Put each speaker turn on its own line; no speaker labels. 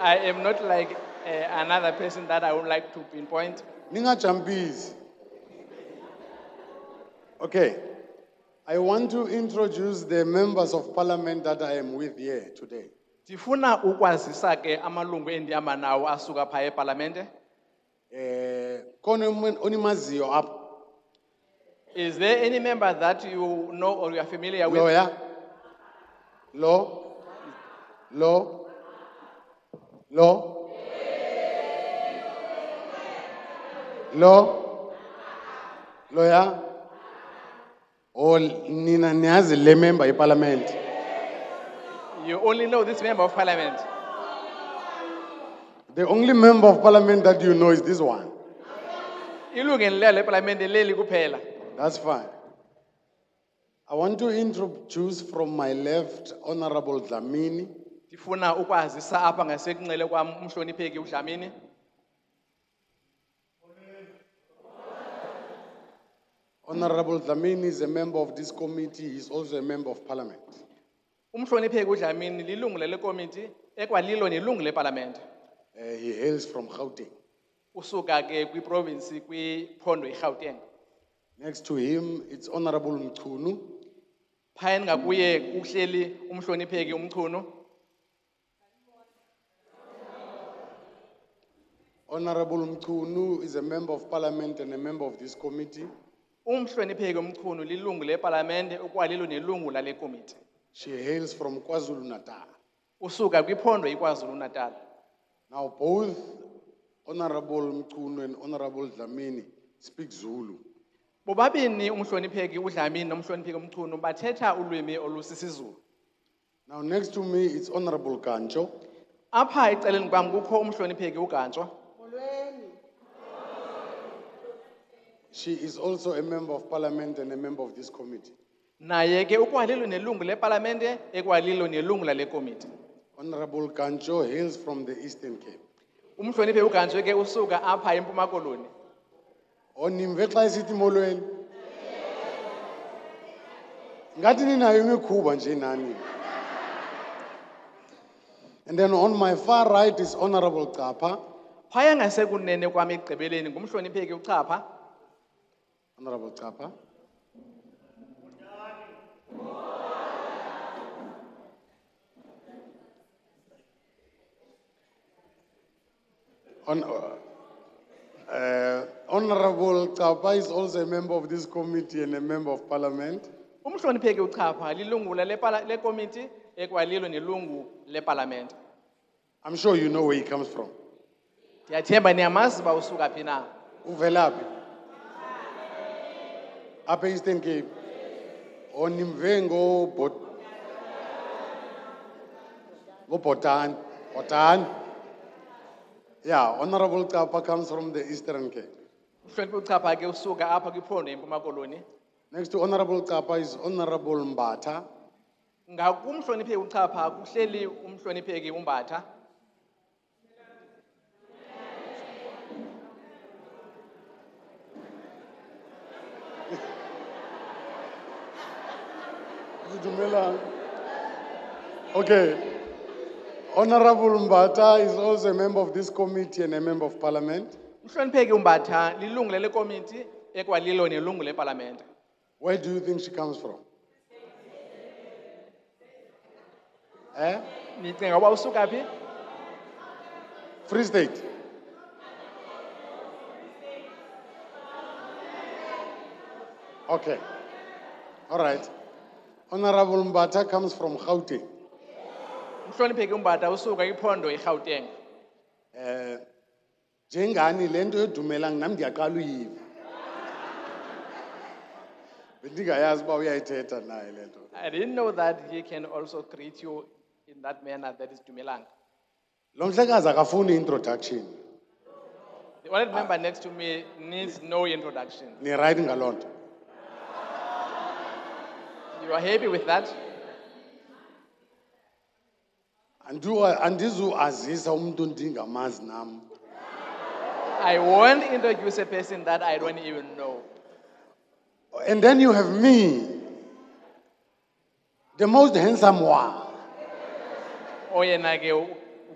I am not like uh, another person that I would like to pinpoint.
Ningajambizi. Okay. I want to introduce the members of parliament that I am with here today.
Ndifuna ukwazisa ke amalungu endihamba nawo asuka phaya epalamente.
Eh, kona omu- onimaziyo apha?
Is there any member that you know or you are familiar with?
Lawyer? Law? Law? Law? Law? Lawyer? Oh, nina niyazi le member yeparlament.
You only know this member of parliament.
The only member of parliament that you know is this one.
Ilungu elileyo lepalamente leli kuphela.
That's fine. I want to introduce from my left Honorable Dlamini,
Ndifuna ukwazisa apha ngasekunxele kwam umhlonipheki uDlamini,
Honorable Dlamini is a member of this committee, he's also a member of parliament.
umhlonipheki uDlamini lilungu lele committee ekwalilo nelungu lepalamente.
Eh, he hails from Gauteng.
Usuka ke kwiprovince kwiphondo iGauteng.
Next to him, it's Honorable Mchunu,
Phayeni ngakuye uhleli umhlonipheki umchunu,
Honorable Mchunu is a member of parliament and a member of this committee.
umhlonipheki umchunu lilungu lepalamente ekwalilo nelungu lale committee.
She hails from KwaZulu Natal.
Usuka kwiphondo iKwaZulu Natal.
Now both Honorable Mchunu and Honorable Dlamini speak Zulu.
Bobabini umhlonipheki uDlamini nomhlonipheki umchunu bathetha ulwimi olusisiZulu.
Now, next to me is Honorable Kancho,
Apha eceleni kwam kukho umhlonipheki uGantsho.
She is also a member of parliament and a member of this committee.
Naye ke ukwalilo nelungu lepalamente ekwalilo nelungu lale committee.
Honorable Kancho hails from the Eastern Cape.
Umhlonipheki uGantsho ke usuka apha eMpuma Koloni.
Onimve xa isithi molweni. Ngathi ninayo imikhuba nje nani. And then on my far right is Honorable Kappa.
Phaya ngasekunene kwam ekugqibeleni ngumhlonipheki uChapha.
Honorable Kappa. Hon- uh, Honorable Kappa is also a member of this committee and a member of parliament.
Umhlonipheki uChapha lilungu lale pala- le committee ekwalilo nelungu lepalamente.
I'm sure you know where he comes from.
Ndiyathemba niyamazi ba usuka phi na.
Uvelaphi? Apha Eastern Cape. Onimve ngoBhot. ngoBhotan, Bhotan. Yeah, Honorable Kappa comes from the Eastern Cape.
Umhlonipheki uChapha ke usuka apha kwiphondo eMpuma Koloni.
Next to Honorable Kappa is Honorable Mbata.
Ngakumhlonipheki uChapha kuhleli umhlonipheki uMbatha.
Dumelang. Okay. Honorable Mbata is also a member of this committee and a member of parliament.
Umhlonipheki uMbatha lilungu lele committee ekwalilo nelungu lepalamente.
Where do you think she comes from? Eh?
Nicinga uba usuka phi?
Free State. Okay. All right. Honorable Mbata comes from Gauteng.
Umhlonipheki uMbatha usuka kwiphondo iGauteng.
Eh, njengani le nto edumelang nam ndiyaqala uyiva. Bendingayazi uba uyayithetha naye le nto.
I didn't know that he can also greet you in that manner that is Dumelang.
Lo mhlekazi akafuni introduction.
The honored member next to me needs no introduction.
Ni right ngaloo nto.
You are happy with that?
Andiwa andizuazisa umuntu ndingamazi nam.
I won't introduce a person that I don't even know.
And then you have me. The most handsome one.
Oyena ke u-